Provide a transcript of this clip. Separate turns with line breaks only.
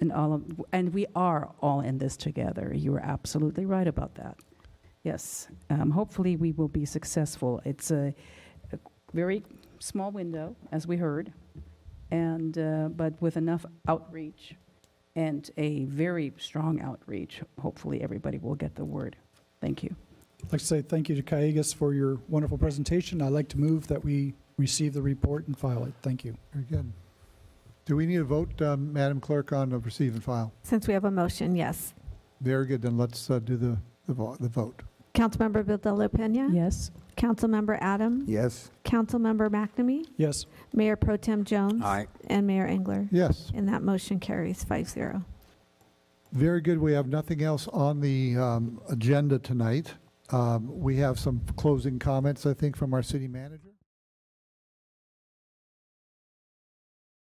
and all of, and we are all in this together. You are absolutely right about that. Yes, um, hopefully we will be successful. It's a, a very small window, as we heard, and uh, but with enough outreach and a very strong outreach, hopefully everybody will get the word. Thank you.
I'd like to say thank you to Kaigas for your wonderful presentation. I'd like to move that we receive the report and file it. Thank you.
Very good. Do we need a vote, um, Madam Clerk, on the receive and file?
Since we have a motion, yes.
Very good, then let's uh, do the, the vo- the vote.
Councilmember Vildella Pena?
Yes.
Councilmember Adam?
Yes.
Councilmember McNamee?
Yes,
Mayor Pro Tem Jones?
Aye.
And Mayor Engler?
Yes,
And that motion carries five zero.
very good. We have nothing else on the um, agenda tonight. Um, We have some closing comments, I think, from our city manager.